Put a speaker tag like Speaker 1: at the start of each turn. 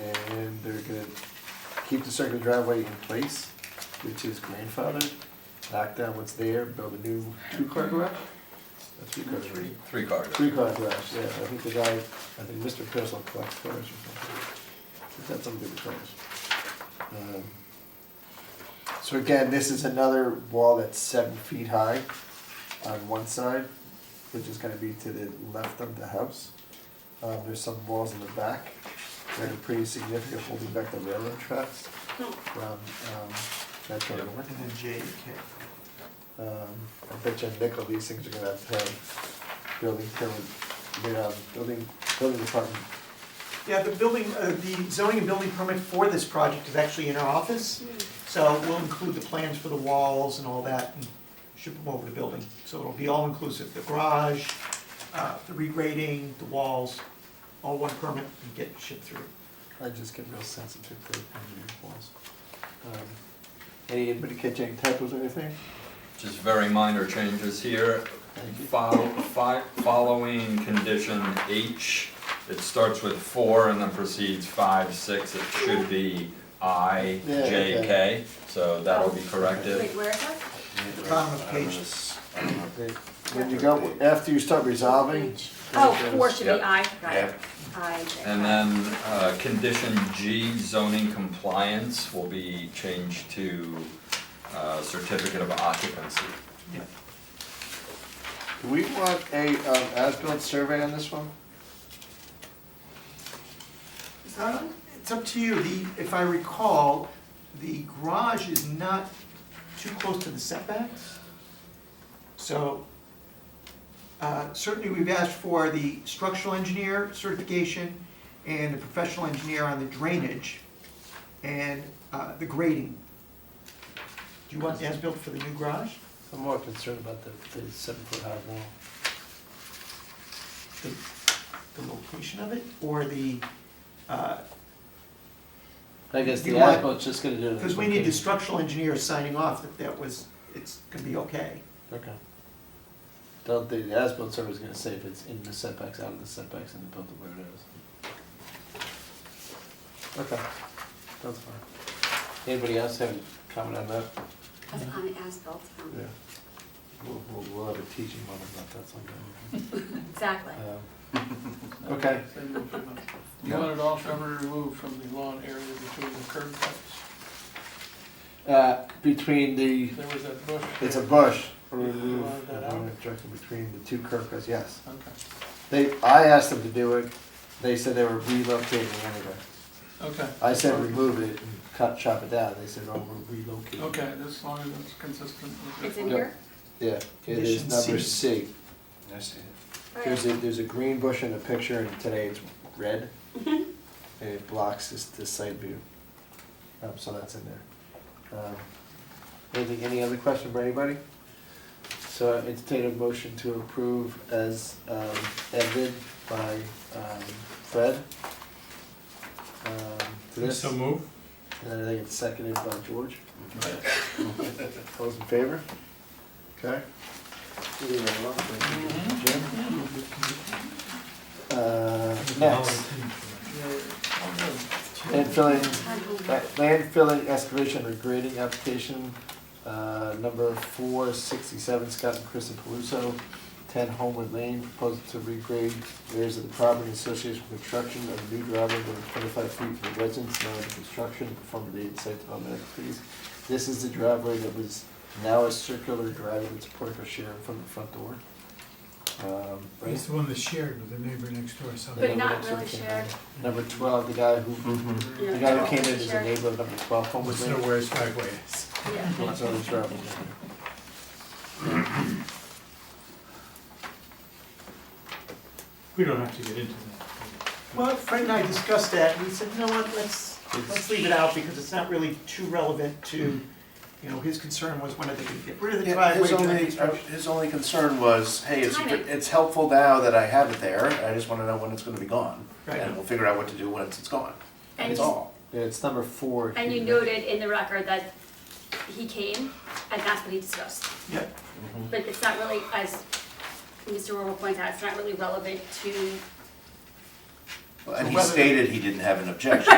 Speaker 1: And they're gonna keep the circular driveway in place, which is grandfathered, knock down what's there, build a new two-car garage? A three-car, three,
Speaker 2: Three cars.
Speaker 1: three-car garage, yeah, I think the guy, I think Mr. Purcell collects cars or something. He's got something with cars. Um, So again, this is another wall that's seven feet high on one side, which is gonna be to the left of the house. Um, there's some walls in the back that are pretty significant, holding back the railroad tracks from, um, Metro
Speaker 2: Yep.
Speaker 1: North.
Speaker 3: And then JK.
Speaker 1: Um, I bet you a nickel these things are gonna have to have building permit, you know, building, building department.
Speaker 3: Yeah, the building, uh, the zoning and building permit for this project is actually in our office, so we'll include the plans for the walls and all that and ship them over to building. So it'll be all inclusive, the garage, uh, the regrading, the walls, all one permit and get shipped through.
Speaker 1: I just get real sensitive to engineering walls. Um, Anybody catch any typos or anything?
Speaker 2: Just very minor changes here.
Speaker 1: Thank you.
Speaker 2: Follow, fi- following condition H, it starts with four and then proceeds five, six, it should be I,
Speaker 1: Yeah,
Speaker 2: J, K. So that'll be
Speaker 4: Wait,
Speaker 2: corrected.
Speaker 4: where is that?
Speaker 3: The bottom of page,
Speaker 1: Okay, When you go, after you start resolving.
Speaker 4: Oh, four should be
Speaker 2: Yep.
Speaker 4: I, right.
Speaker 5: Yep.
Speaker 4: I, J.
Speaker 2: And then, uh, condition G, zoning compliance will be changed to, uh, certificate of occupancy.
Speaker 3: yeah,
Speaker 1: Do we want a, um, as-built survey on this one?
Speaker 3: Uh, It's up to you, the, if I recall, the garage is not too close to the setbacks. So, uh, certainly we've asked for the structural engineer certification and the professional engineer on the drainage and, uh, the grading. Do you want the as-built for the new garage?
Speaker 1: I'm more concerned about the, the seven-foot-high wall.
Speaker 3: The, the location of it, or the, uh,
Speaker 6: I guess
Speaker 3: You
Speaker 6: the
Speaker 3: want-
Speaker 6: ASBIL's just gonna do it.
Speaker 3: Because we need the structural engineer signing off that that was, it's gonna be okay.
Speaker 6: Okay. Don't, the ASBIL survey's gonna say if it's in the setbacks, out of the setbacks, and above the where it is.
Speaker 1: Okay, that's fine.
Speaker 6: Anybody else have a comment on that?
Speaker 4: That's on the as-built, um,
Speaker 1: Yeah. We'll, we'll, we'll have a teaching moment about that sometime.
Speaker 4: exactly.
Speaker 1: Um, Okay,
Speaker 7: You want it all ever removed from the lawn area between the curb cuts.
Speaker 1: uh, between the,
Speaker 7: There was that bush.
Speaker 1: it's a
Speaker 7: there.
Speaker 1: bush, remove,
Speaker 7: Line that out.
Speaker 1: uh, directly between the two curb cuts, yes.
Speaker 7: Okay,
Speaker 1: They, I asked them to do it, they said they were relocating anyway.
Speaker 7: okay.
Speaker 1: I said remove it and cut, chop it down, they said, oh, we're relocating.
Speaker 7: Okay, as long as it's consistent with
Speaker 4: It's
Speaker 7: the.
Speaker 4: in here?
Speaker 1: Yeah, it is
Speaker 3: Condition
Speaker 1: number
Speaker 3: C.
Speaker 1: C.
Speaker 5: I see it.
Speaker 4: Oh, yeah.
Speaker 1: There's a, there's a green bush in the picture and today it's red. And it blocks this, this side view. Um, so that's in there. Um, Anything, any other question for anybody?
Speaker 6: So I entertain a motion to approve as, um,
Speaker 1: Edited by, um, Fred. Um, to this, and
Speaker 2: move.
Speaker 1: then I think it's seconded by George. All those in favor? Okay. Jim? Uh, next, landfilling,
Speaker 4: Time to move.
Speaker 1: landfilling excavation or grading application, uh, number four sixty-seven, Scott and Kristen Paluso, ten Homewood Lane, proposal to regrade areas of the property in association with construction of a new driveway within twenty-five feet from the residence, now under construction, perform the date site development activities. This is the driveway that was now a circular driveway, it's a portico share from the front door. Um, right?
Speaker 8: It's the one that's shared with the neighbor next door, so.
Speaker 4: But not
Speaker 1: Number
Speaker 4: really
Speaker 1: 16,
Speaker 4: shared.
Speaker 1: Number twelve, the guy who,
Speaker 4: Yeah.
Speaker 1: the guy who came in as a
Speaker 4: Shared.
Speaker 1: neighbor of number twelve, homeless
Speaker 8: Almost
Speaker 1: man.
Speaker 8: know where his driveway is.
Speaker 4: Yeah.
Speaker 1: What's on the travel?
Speaker 8: We don't have to get into that.
Speaker 3: Well, Fred and I discussed that, and we said, you know what, let's, let's leave it out, because it's not really too relevant to, you know, his concern was when are they gonna get rid of the
Speaker 5: Yeah,
Speaker 3: driveway
Speaker 5: His
Speaker 3: during
Speaker 5: only,
Speaker 3: construction.
Speaker 5: his only concern was, hey, it's,
Speaker 4: Timing.
Speaker 5: it's helpful now that I have it there, I just wanna know when it's gonna be gone.
Speaker 3: Right.
Speaker 5: And we'll figure out what to do once it's gone,
Speaker 4: And
Speaker 5: that's
Speaker 4: you-
Speaker 5: all.
Speaker 1: Yeah, it's number four.
Speaker 4: And you noted in the record that he came, and that's what he discussed.
Speaker 3: Yeah,
Speaker 4: But it's not really, as Mr. Warble points out, it's not really relevant to
Speaker 5: And he
Speaker 3: whether-
Speaker 5: stated he didn't have an objection.